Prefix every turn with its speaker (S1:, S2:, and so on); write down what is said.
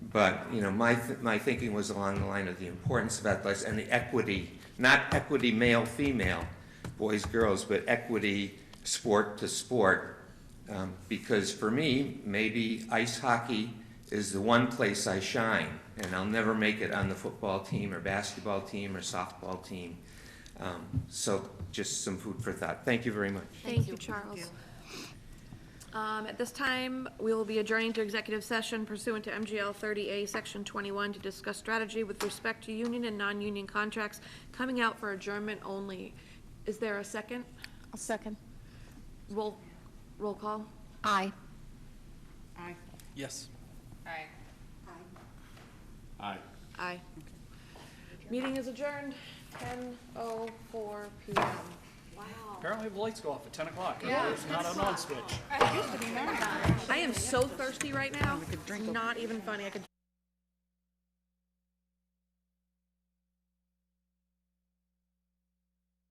S1: But, you know, my, th- my thinking was along the line of the importance of athletics and the equity, not equity male, female, boys, girls, but equity sport to sport. Um, Because for me, maybe ice hockey is the one place I shine, and I'll never make it on the football team or basketball team or softball team. Um, So just some food for thought. Thank you very much.
S2: Thank you, Charles. Um, At this time, we will be adjourning to executive session pursuant to MGL 30A, Section 21, to discuss strategy with respect to union and non-union contracts coming out for adjournment only. Is there a second?
S3: I'll second.
S2: Roll, roll call?
S3: Aye.
S4: Aye.
S5: Yes.
S4: Aye.
S5: Aye.
S2: Aye. Meeting is adjourned, 10:04 PM.
S5: Apparently the lights go off at ten o'clock.
S4: Yeah.
S5: It's not an on switch.
S4: It used to be mine.
S2: I am so thirsty right now, it's not even funny, I could